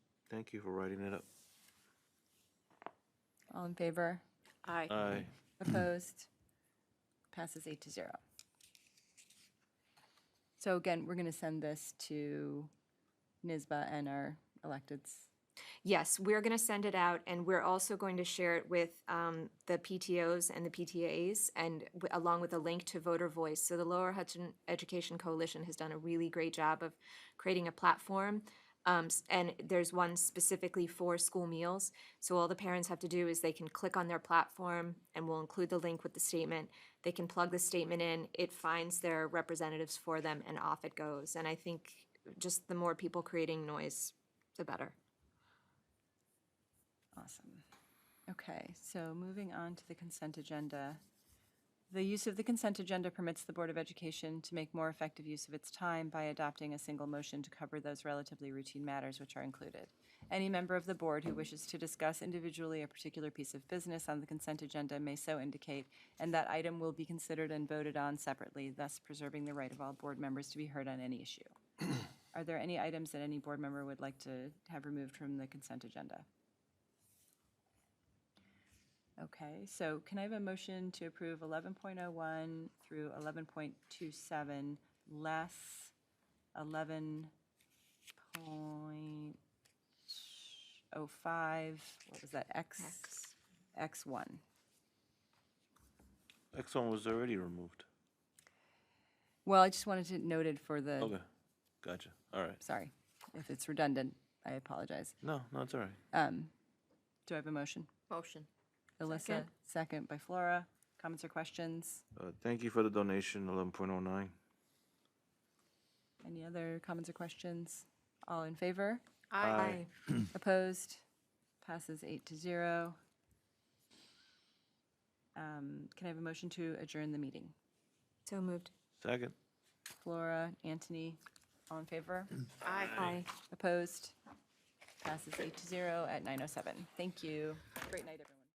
Thank you for writing it up. All in favor? Aye. Aye. Opposed? Passes eight to zero. So again, we're going to send this to NISBA and our electeds. Yes, we're going to send it out, and we're also going to share it with um, the PTOs and the PTAs, and w- along with a link to Voter Voice. So the Lower Hudson Education Coalition has done a really great job of creating a platform, um, s- and there's one specifically for school meals. So all the parents have to do is they can click on their platform, and we'll include the link with the statement. They can plug the statement in, it finds their representatives for them, and off it goes. And I think just the more people creating noise, the better. Awesome. Okay, so moving on to the consent agenda. The use of the consent agenda permits the Board of Education to make more effective use of its time by adopting a single motion to cover those relatively routine matters which are included. Any member of the board who wishes to discuss individually a particular piece of business on the consent agenda may so indicate, and that item will be considered and voted on separately, thus preserving the right of all board members to be heard on any issue. Are there any items that any board member would like to have removed from the consent agenda? Okay, so can I have a motion to approve 11.01 through 11.27, less 11.05, what was that, X? X1. Next one was already removed. Well, I just wanted to note it for the, Okay, gotcha. All right. sorry, if it's redundant, I apologize. No, no, it's all right. Do I have a motion? Motion. Alyssa, Second. second by Flora. Comments or questions? Uh, Thank you for the donation, 11.09. Any other comments or questions? All in favor? Aye. Opposed? Passes eight to zero. Um, Can I have a motion to adjourn the meeting? So moved. Second. Flora, Anthony, all in favor? Aye. Opposed? Passes eight to zero at 9:07. Thank oh you. Great night, everyone.